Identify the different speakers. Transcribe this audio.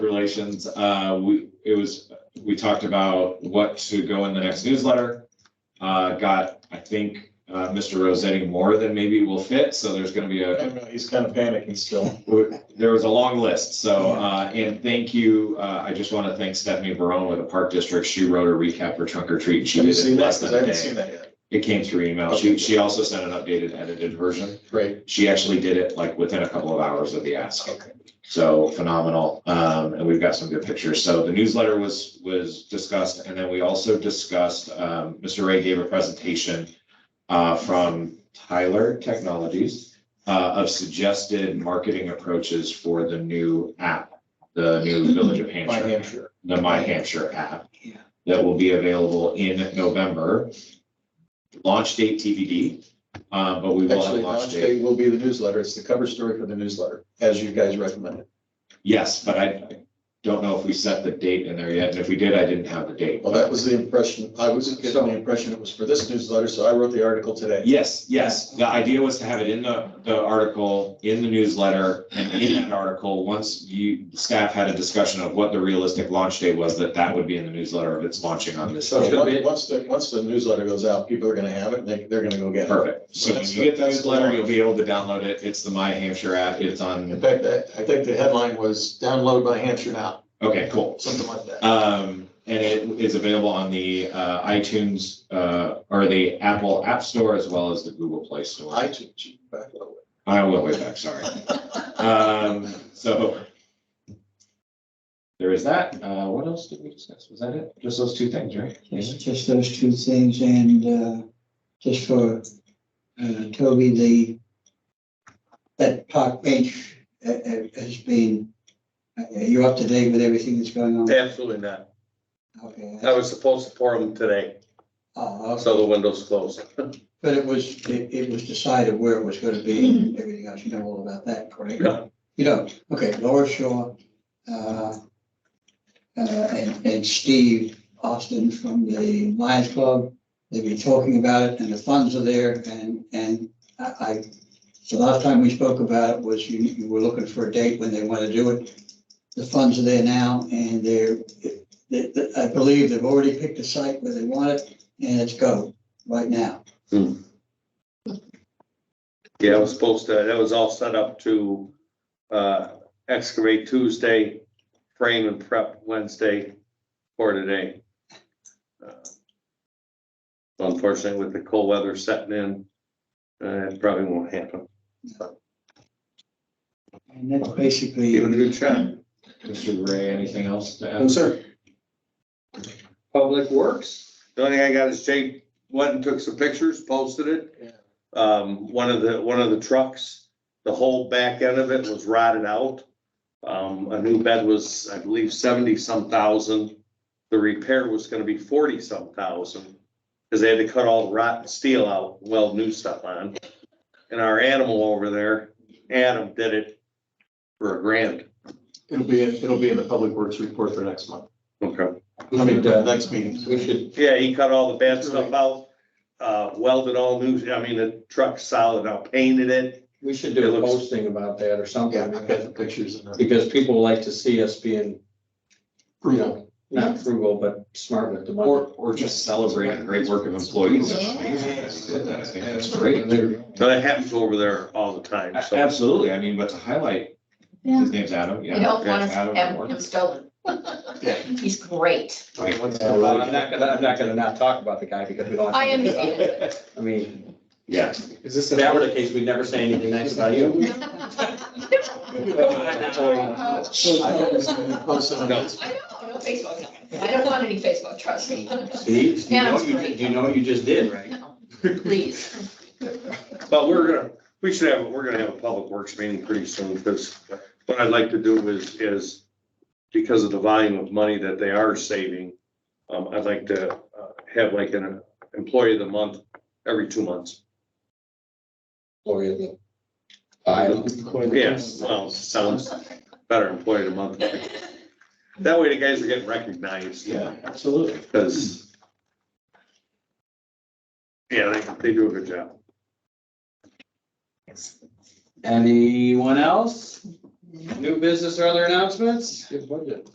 Speaker 1: relations, uh, we, it was, we talked about what to go in the next newsletter. Uh, got, I think, uh, Mr. Rosetti more than maybe will fit, so there's gonna be a,
Speaker 2: He's kind of panicking still.
Speaker 1: there was a long list, so, uh, and thank you, uh, I just wanna thank Stephanie Barone with the Park District, she wrote a recap for trunk or treat, she
Speaker 2: Have you
Speaker 1: did it
Speaker 2: seen that?
Speaker 1: less
Speaker 2: 'Cause
Speaker 1: than
Speaker 2: I
Speaker 1: a
Speaker 2: haven't seen
Speaker 1: day.
Speaker 2: that yet.
Speaker 1: It came through email, she, she also sent an updated edited version,
Speaker 2: Great.
Speaker 1: she actually did it like within a couple of hours of the ask.
Speaker 2: Okay.
Speaker 1: So phenomenal. Um, and we've got some good pictures. So the newsletter was, was discussed and then we also discussed, um, Mr. Ray gave a presentation uh, from Tyler Technologies uh, of suggested marketing approaches for the new app, the new Village of
Speaker 2: Mm-hmm. My
Speaker 1: Hampshire,
Speaker 2: Hampshire.
Speaker 1: the My Hampshire app
Speaker 2: Yeah.
Speaker 1: that will be available in November. Launch date TBD, uh, but we will have a
Speaker 2: Actually,
Speaker 1: launch
Speaker 2: launch
Speaker 1: date.
Speaker 2: day will be the newsletter. It's the cover story for the newsletter, as you guys recommended.
Speaker 1: Yes, but I I don't know if we set the date in there yet, and if we did, I didn't have the date.
Speaker 2: Well, that was the impression. I was getting the impression it was for this newsletter, so I wrote the article today.
Speaker 1: Yes, yes, the idea was to have it in the, the article, in the newsletter, and in that article, once you, staff had a discussion of what the realistic launch date was, that that would be in the newsletter if it's launching on this.
Speaker 2: So
Speaker 1: date.
Speaker 2: once- once the, once the newsletter goes out, people are gonna have it and they, they're gonna go get it.
Speaker 1: Perfect, so when you get the newsletter, you'll be able to download it, it's the My Hampshire app, it's
Speaker 2: In
Speaker 1: on,
Speaker 2: fact, I, I think the headline was download by Hampshire now,
Speaker 1: okay, cool.
Speaker 2: something like that.
Speaker 1: Um, and it is available on the uh, iTunes, uh, or the Apple App Store as well as the Google Play Store. Oh,
Speaker 2: I took you back a little
Speaker 1: I will way back, sorry. Um, so. There is that. Uh, what else did we discuss? Was that it? Just those two things, right?
Speaker 3: Just, just those two things and, uh, just for, uh, Toby, the, that park bench uh, uh, has been, uh, you're up to date with everything that's going on?
Speaker 4: Absolutely not.
Speaker 3: Okay.
Speaker 4: I was supposed to pour them today,
Speaker 3: Oh, okay.
Speaker 4: so the window's closed.
Speaker 3: But it was, it, it was decided where it was gonna be and everything else. You know all about that, correct?
Speaker 4: No.
Speaker 3: You don't? Okay, Laura Shaw, uh, uh, and, and Steve Austin from the Lions Club. They've been talking about it and the funds are there and, and I, I, the last time we spoke about it was you, you were looking for a date when they want to do it. The funds are there now and they're, they- they- I believe they've already picked a site where they want it and it's go right now.
Speaker 4: Yeah, I was supposed to, that was all set up to uh, excavate Tuesday, frame and prep Wednesday for today. Uh, Unfortunately, with the cold weather setting in, uh, it probably won't happen.
Speaker 3: And that's basically,
Speaker 4: Give it a good shot.
Speaker 1: Mr. Ray, anything else to
Speaker 2: bit.
Speaker 1: add?
Speaker 2: sir.
Speaker 4: Public Works. The only thing I got is Jake went and took some pictures, posted it. Um, one of the, one of the trucks, the whole back end of it was rotted out. Um, a new bed was, I believe, seventy some thousand. The repair was gonna be forty some thousand. Cause they had to cut all the rotten steel out, weld new stuff on. And our animal over there, Adam, did it for a grand.
Speaker 2: It'll be, in- it'll be in the public works report for next month.
Speaker 4: Okay.
Speaker 2: I mean, uh, next meeting.
Speaker 5: We should,
Speaker 4: Yeah, he cut all the bad stuff out, uh, welded all new, I mean, the truck solid, now painted it.
Speaker 5: we should
Speaker 4: It
Speaker 5: do a
Speaker 4: looks-
Speaker 5: posting about that or
Speaker 2: Yeah,
Speaker 5: something,
Speaker 2: I've got the pictures in there.
Speaker 5: because people like to see us being, you know, not frugal, but smart with the money.
Speaker 1: Or, or just celebrate the great work of employees. I think That's great.
Speaker 4: So that happens over there all the time,
Speaker 1: A-
Speaker 4: so.
Speaker 1: Absolutely. I mean, but to highlight,
Speaker 6: Yeah.
Speaker 1: his name's Adam,
Speaker 6: You
Speaker 1: yeah.
Speaker 6: don't want to
Speaker 1: Adam
Speaker 6: have
Speaker 1: Morgan.
Speaker 6: him stolen.
Speaker 2: Yeah.
Speaker 6: He's great.
Speaker 5: Yeah, well, uh, I'm not gonna, I'm not gonna not talk about the guy because we don't. have to.
Speaker 6: I understand.
Speaker 5: I mean,
Speaker 1: Yeah.
Speaker 5: is this, if that were the case, we'd never say anything nice about you.
Speaker 6: I don't know Facebook. I don't want any Facebook, trust me.
Speaker 5: See, you know,
Speaker 6: Adam's
Speaker 5: what you,
Speaker 6: great.
Speaker 5: you know what you just did, right?
Speaker 6: No, Please.
Speaker 4: But we're gonna, we should have, we're gonna have a public works meeting pretty soon, because what I'd like to do is, is because of the volume of money that they are saving, um, I'd like to uh, have like an employee of the month every two months.
Speaker 5: Or you- I don't-
Speaker 4: Yes, well, sounds better, employee of the month. That way the guys are getting recognized.
Speaker 1: Yeah, absolutely.
Speaker 4: Because. Yeah, they, they do a good job.
Speaker 5: Anyone else?
Speaker 7: New business or other announcements?
Speaker 5: Good budget.